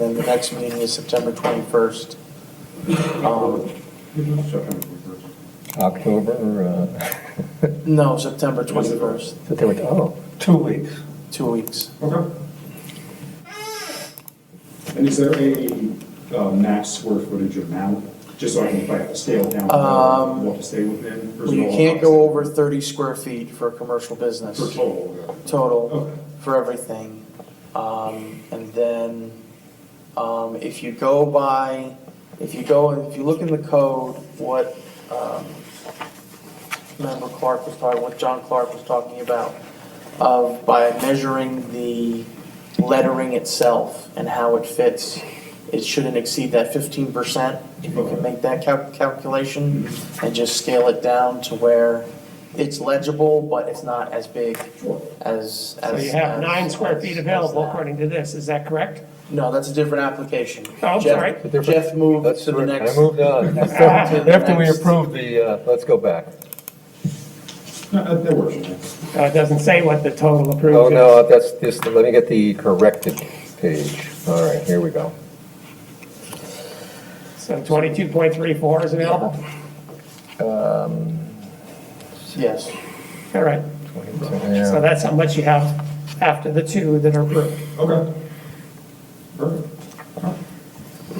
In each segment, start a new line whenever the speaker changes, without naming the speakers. And then the next meeting is September 21st. Um,
October, uh,
No, September 21st,
September, oh,
Two weeks.
two weeks.
Okay. And is there a uh, max square footage amount, just so I can, if I have to scale down,
Um,
what to stay within? or is it
You
all
can't
constant?
go over 30 square feet for a commercial business.
For total,
Total
okay.
for everything. Um, And then um, if you go by, if you go, and if you look in the code, what um, member Clark was talking, what John Clark was talking about, of by measuring the lettering itself and how it fits, it shouldn't exceed that 15%. If you can make that cal- calculation and just scale it down to where it's legible, but it's not as big
Sure.
as.
So
as-
you have
as-
nine square
as-
feet
as
available
that.
according to this, is that correct?
No, that's a different application.
Oh, I'm
Jeff-
sorry.
Jeff moved
let's,
to the next.
I moved on. After we approve the, uh, let's go back.
No, that- that works.
Uh, It doesn't say what the total approved is.
Oh, no, that's, this, let me get the corrected page. All right, here we go.
So 22.34 is available?
Yes,
All right, so that's how much you have after the two that are approved.
Okay. Perfect.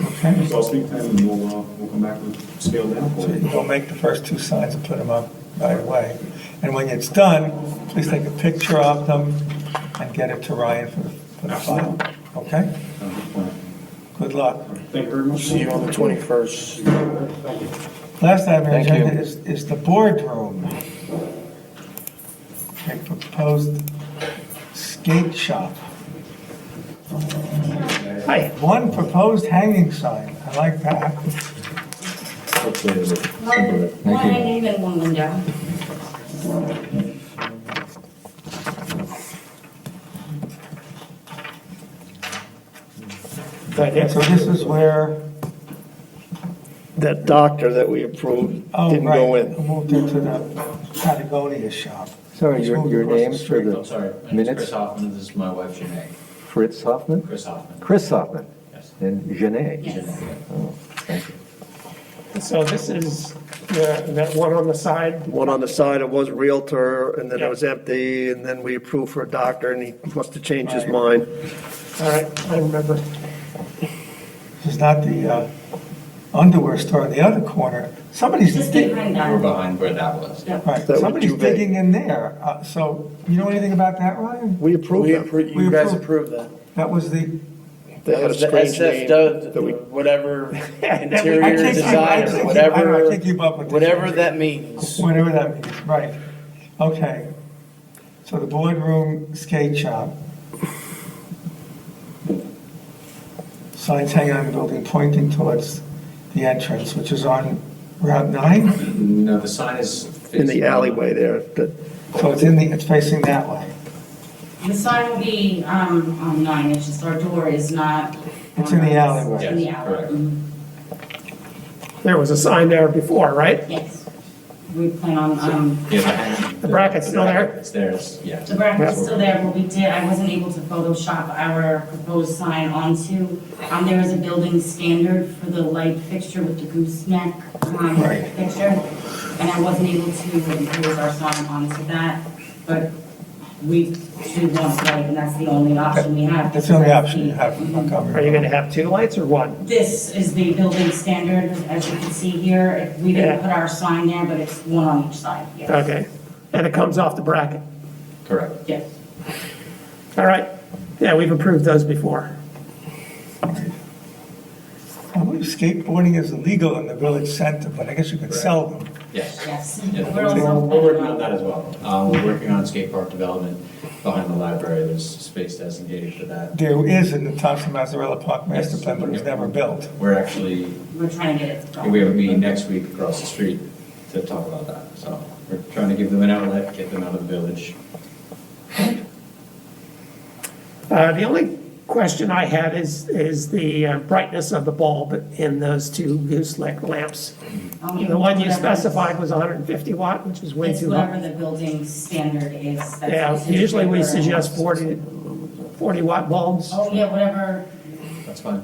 Okay, so I'll speak to him and we'll, uh, we'll come back with scale down for
So you
you.
go make the first two signs and put them up right away. And when it's done, please take a picture of them and get it to Ryan for the, for the file, okay? Good luck.
Thank you very much.
see you on the 21st.
Thank you.
Last item on the
Thank you.
agenda is, is the boardroom. A proposed skate shop.
Hi,
One proposed hanging sign, I like that.
One, one
Thank you.
hanging and one window.
so I guess
So this is where,
That doctor that we approved
oh, right.
didn't go in.
Moved into the Patagonia shop.
Sorry,
It's
your,
moved
your
across the
name for
street.
I'm
the
sorry, my name's
Minutes?
Chris Hoffman, this is my wife Janae,
Fritz Hoffman?
Chris Hoffman.
Chris Hoffman?
Yes.
And Janae?
Yes.
Oh, thank you.
So this is the- that one on the side,
One on the side, it was Realtor, and then
Yeah.
it was empty, and then we approved for a doctor, and he must have changed his mind.
all right, I remember.
This is not the uh, underwear store in the other corner. Somebody's
Just
dig-
behind
We're
that.
behind where that was.
Yep.
right,
That was
somebody's
too big.
digging in there. Uh, So you know anything about that, Ryan?
We approved
We
them.
appro,
We
you guys
approve.
approved that.
That was the,
They had a
The
strange
SF
name.
dud-
that we-
whatever
I
interior
can't keep- I can't
design,
keep-
or
I
whatever,
can't keep up with this.
whatever that means.
whatever that means, right. Okay. So the boardroom skate shop. Signs hanging on the building pointing towards the entrance, which is on Route 9.
No, the sign is.
In the
facing-
alleyway there, that,
So it's in the, it's facing that way.
The sign will be, um, on nine, it's just our door is not.
It's in the alleyway.
It's in the
Yes,
alley.
correct.
Mhm.
There was a sign there before, right?
Yes. We plan on, um,
Yeah, the hanging.
The bracket's still there?
It's there, it's- yeah.
the bracket's still there, but we did, I wasn't able to Photoshop our proposed sign onto. Um, there is a building standard for the light fixture with the gooseneck, um,
Right.
picture. And I wasn't able to impose our sign onto that, but we do want light, and that's the only option we have.
That's the only option you have in Montgomery.
Are you going to have two lights or one?
This is the building standard, as you can see here. We
Yeah.
didn't put our sign there, but it's one on each side, yes.
Okay, and it comes off the bracket.
Correct.
Yes.
All right, yeah, we've approved those before.
I believe skateboarding is illegal in the village center, but I guess you could sell them.
Yes.
Yes.
Yeah,
We're
We're
also-
we're working on that as well. Um, We're working on skate park development behind the library. There's space designated for that.
There is in the Thompson Mazzarella Park master plan, but it was never built.
We're actually,
We're trying to get it. going.
we have a meeting next week across the street to talk about that. So we're trying to give them an outlet, get them out of the village.
Uh, The only question I had is, is the uh, brightness of the bulb in those two gooseneck lamps.
Um,
The one you
whatever-
specified was 150 watt, which is way
It's
too high.
whatever the building standard is. that's
Yeah,
what's in
usually we
favor.
suggest 40, 40 watt bulbs.
Oh, yeah, whatever,
that's fine.